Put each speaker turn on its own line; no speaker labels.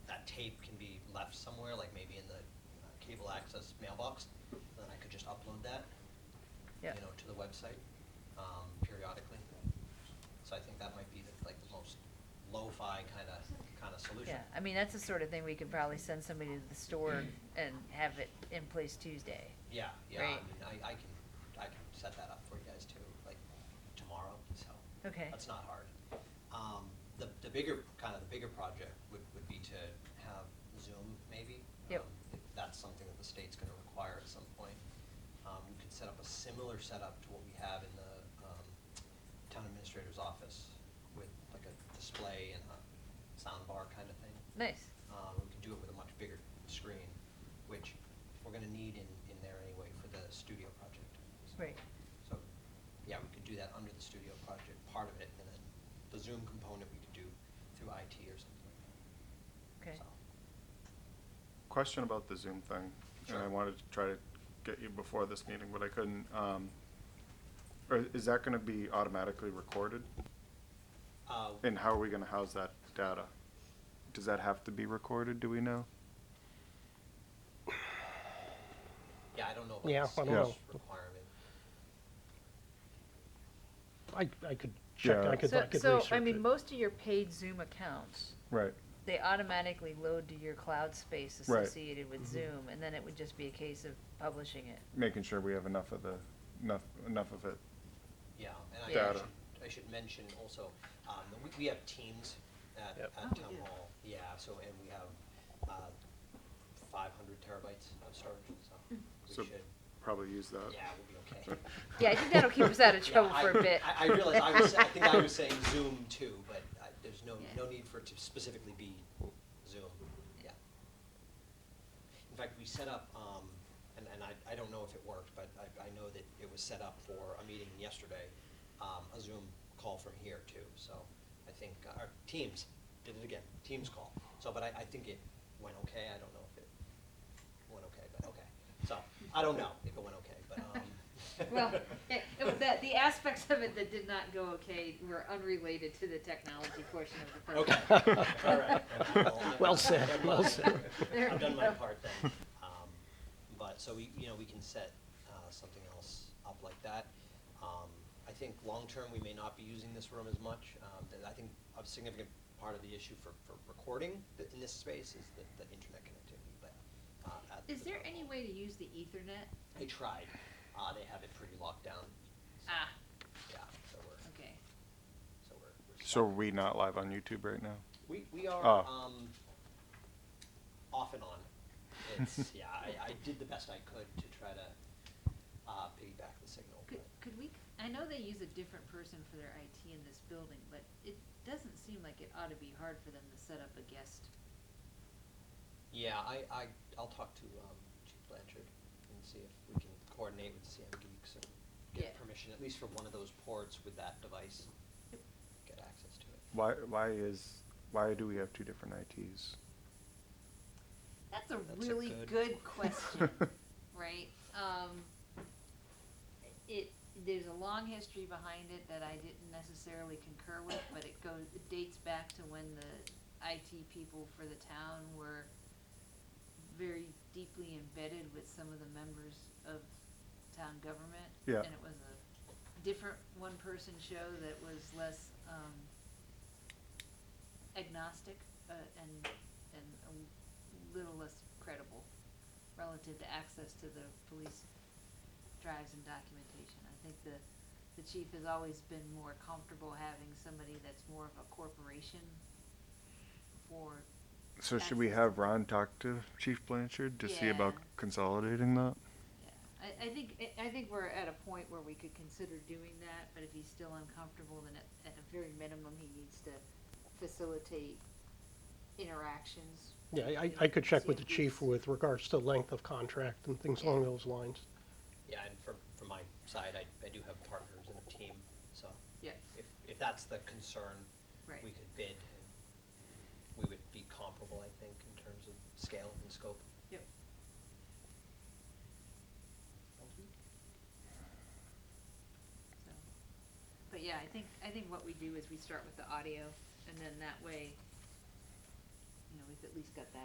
left somewhere, like maybe in the uh, cable access mailbox, and then I could just upload that, you
Yeah.
know, to the website um, periodically. So I think that might be the, like the most lo-fi kind of, kind of solution.
Yeah, I mean, that's the sort of thing we could probably send somebody to the store and have it in place Tuesday.
Yeah, yeah,
Right.
I mean, I, I can, I can set that up for you guys too, like tomorrow, so.
Okay.
That's not hard. Um, the, the bigger, kind of the bigger project would, would be to have Zoom maybe.
Yep.
Um, If that's something that the state's gonna require at some point. Um, we could set up a similar setup to what we have in the, um, town administrator's office with like a display and a sound bar kind of thing.
Nice.
Um, we can do it with a much bigger screen, which we're gonna need in, in there anyway for the studio project. So-
Right.
So, yeah, we could do that under the studio project, part of it, and then the Zoom component we could do through IT or something like that.
Okay.
So,
Question about the Zoom thing, and I
Sure.
wanted to try to get you before this meeting, but I couldn't. Um, or is that gonna be automatically recorded?
Uh,
And how are we gonna house that data? Does that have to be recorded, do we know?
yeah, I don't know
Yeah,
about
I don't
the state's
know.
requirement.
I, I could check,
Yeah.
I could, I
So,
could
so,
research
I mean,
it.
most of your paid Zoom accounts,
Right.
they automatically load to your cloud space
Right.
associated with
Mm-hmm.
Zoom, and then it would just be a case of publishing it.
Making sure we have enough of the, enough, enough of it.
Yeah, and I- I
Data.
should, I should mention also, um, we, we have teams at,
Yep.
Oh,
at town hall. Yeah, so, and we have, uh, five hundred terabytes of storage, so
Hmm.
So
we should,
probably use that.
yeah, we'll be okay.
Yeah, I think that'll keep us out of
Yeah,
trouble
I-
for a bit.
I, I realize, I was, I think I was saying Zoom too, but I, there's no,
Yeah.
no need for it to specifically be Zoom, yeah. In fact, we set up, um, and, and I, I don't know if it worked, but I, I know that it was set up for a meeting yesterday, um, a Zoom call from here too, so I think, uh, our Teams did it again, Teams call. So, but I, I think it went okay, I don't know if it went okay, but okay. So, I don't know if it went okay, but, um.
Well, it- it- the, the aspects of it that did not go okay were unrelated to the technology portion of the
Okay,
program.
all right.
Well
I've
said,
done
well
my-
said.
I've done my part then. Um, But, so we, you know, we can set uh, something else up like that. Um, I think long-term, we may not be using this room as much. Um, th- I think a significant part of the issue for, for recording th- in this space is the, the internet connectivity, but. uh, at
Is
the
there
town
any
hall-
way to use the ethernet?
They tried, Uh, they have it pretty locked down,
Ah,
yeah, so we're,
okay.
so we're. we're
So are
stuck.
we not live on YouTube right now?
We, we are
Oh.
um, off and on. It's, yeah, I, I did the best I could to try to uh, piggyback the signal.
Could,
but-
could we, I know they use a different person for their IT in this building, but it doesn't seem like it ought to be hard for them to set up a guest.
Yeah, I, I, I'll talk to um, Chief Blanchard and see if we can coordinate with CM Geeks and get
Yeah.
permission, at least for one of those ports with that device, get access to it.
Why, why is, why do we have two different ITs?
That's a
That's a
really
good-
good question, right? Um, it, there's a long history behind it that I didn't necessarily concur with, but it goes, it dates back to when the IT people for the town were very deeply embedded with some of the members of town government.
Yeah.
And it was a different one-person show that was less, um, agnostic, uh, and, and a little less credible relative to access to the police drives and documentation. I think the, the chief has always been more comfortable having somebody that's more of a corporation for,
So should we have Ron talk to Chief Blanchard to see about
Yeah.
consolidating that?
yeah. I, I think, I- I think we're at a point where we could consider doing that, but if he's still uncomfortable, then at, at a very minimum, he needs to facilitate interactions.
Yeah, I, I could check with the
CMPs.
chief with regards to length of contract and things along those lines.
Yeah, and from, from my side, I, I do have partners and a team, so
Yeah,
if, if that's the concern,
right.
we could bid. and We would be comparable, I think, in terms of scale and scope.
Yep. So, But yeah, I think, I think what we do is we start with the audio, and then that way, you know, we've at least got that